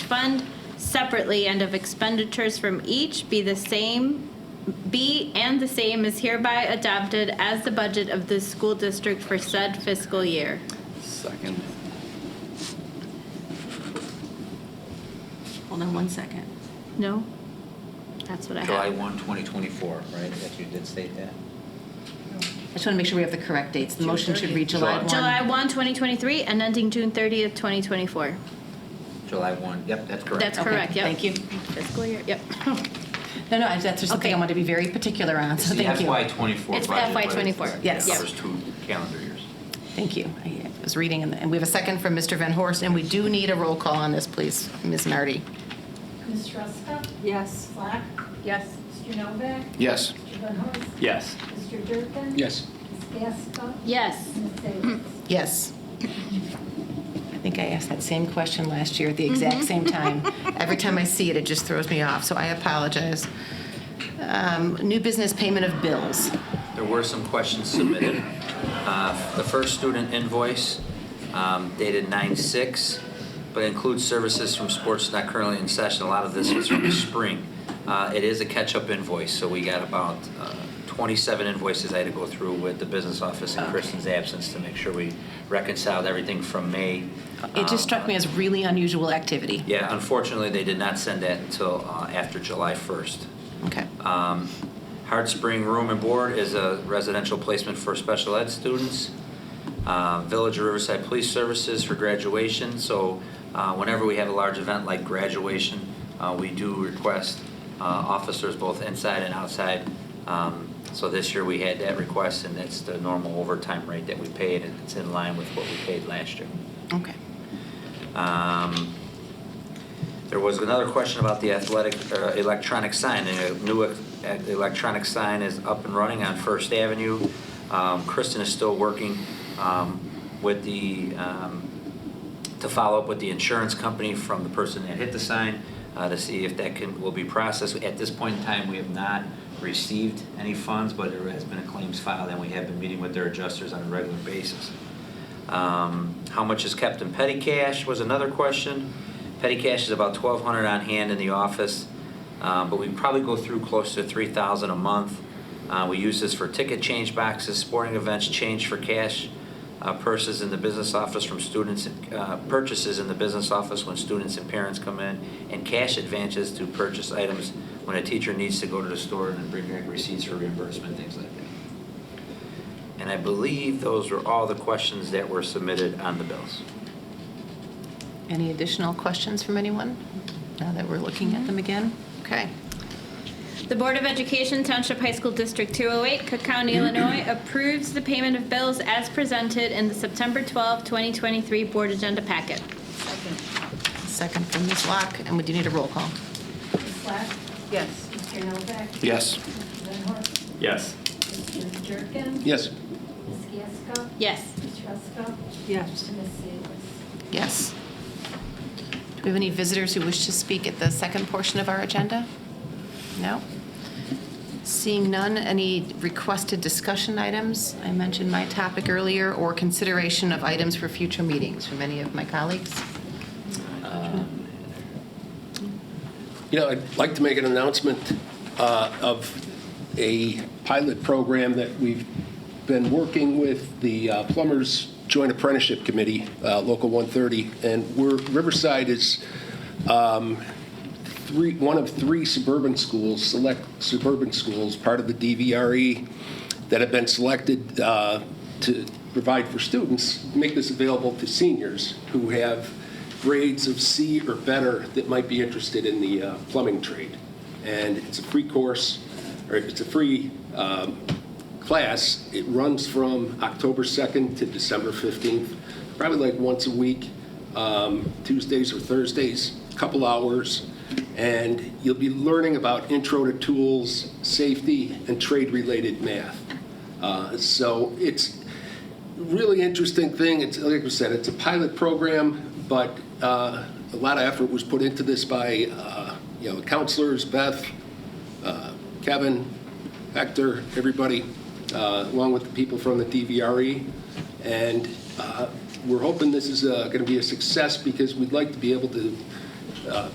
fund separately and of expenditures from each be the same, be and the same is hereby adopted as the budget of the school district for said fiscal year. Second. Hold on one second. No? That's what I July have. 1, 2024, right? That you did state that? I just want to make sure we have the correct dates. The motion should read July. July July 1. 1, 2023, and ending June 30th, 2024. July 1, yep, that's correct. That's Okay, correct, yep. thank you. Fiscal year, yep. No, no, I- that's just something I Okay. want to be very particular on, so thank you. FY '24 It's budget. FY but it- 24, it yes. Covers two calendar years. Thank you. I was reading, and- and we have a second from Mr. Van Horst, and we do need a roll call on this, please. Ms. Nardi? Ms. Ruska? Yes. Slack? Yes. Mr. Novak? Yes. Mr. Van Horst? Yes. Mr. Durkin? Yes. Ms. Gasko? Yes. Ms. Davis? Yes. I think I asked that same question last year at the Mm-hmm. exact same time. Every time I see it, it just throws me off, so I apologize. Um, New business payment of bills. There were some questions submitted. Uh, The first student invoice um, dated 9/6, but includes services from sports not currently in session. A lot of this is from the spring. Uh, It is a catch-up invoice, so we got about uh, 27 invoices I had to go through with the business office in Okay. Kristen's absence to make sure we reconciled everything from May. Um, It Uh, just struck me as really unusual activity. Yeah, unfortunately, they did not send that until uh, after July 1st. Okay. Um, Hard Spring Room and Board is a residential placement for special ed students. Uh, Village of Riverside Police Services for graduation, so uh, whenever we have a large event like graduation, uh, we do request uh, officers both inside and outside. Um, So this year, we had that request, and that's the normal overtime rate that we paid, and it's in line with what we paid last year. Okay. Um, There was another question about the athletic, uh, electronic sign, and a new e- electronic sign is up and running on First Avenue. Um, Kristen is still working um, with the, um, to follow up with the insurance company from the person that hit the sign, uh, to see if that can, will be processed. At this point in time, we have not received any funds, but there has been a claims filed, and we have been meeting with their adjusters on a regular basis. Um, How much is kept in petty cash was another question. Petty cash is about 1,200 on hand in the office, uh, but we probably go through close to 3,000 a month. Uh, We use this for ticket change boxes, sporting events, change for cash, uh, purses in the business office from students, uh, purchases in the business office when students and parents come in, and cash advances to purchase items when a teacher needs to go to the store and bring back receipts for reimbursement, things like that. And I believe those were all the questions that were submitted on the bills. Any additional questions from anyone, now that we're looking at them again? Okay. The Board of Education Township High School District 208, Cook County, Illinois approves the payment of bills as presented in the September 12, 2023 Board Agenda Packet. Second from Ms. Locke, and we do need a roll call. Ms. Slack? Yes. Mr. Novak? Yes. Mr. Van Horst? Yes. Mr. Durkin? Yes. Ms. Gasko? Yes. Ms. Ruska? Yes. Ms. Davis? Yes. Do we have any visitors who wish to speak at the second portion of our agenda? No? Seeing none, any requested discussion items? I mentioned my topic earlier, or consideration of items for future meetings from any of my colleagues? You know, I'd like to make an announcement uh, of a pilot program that we've been working with the uh, Plumbers Joint Apprenticeship Committee, uh, Local 130, and we're, Riverside is three, one of three suburban schools, select suburban schools, part of the DVRE, E, that have been selected uh, to provide for students, make this available to seniors who have grades of C or better that might be interested in the uh, plumbing trade. And it's a free course, or it's a free um, class. It runs from October 2nd to December 15th, probably like once a week, um, Tuesdays or Thursdays, couple hours. And you'll be learning about intro to tools, safety, and trade-related math. Uh, So it's a really interesting thing. It's, like I said, it's a pilot program, but uh, a lot of effort was put into this by, uh, you know, counselors, Beth, Kevin, Hector, everybody, uh, along with the people from the DVRE. E. And uh, we're hoping this is going to be a success because we'd like to be able to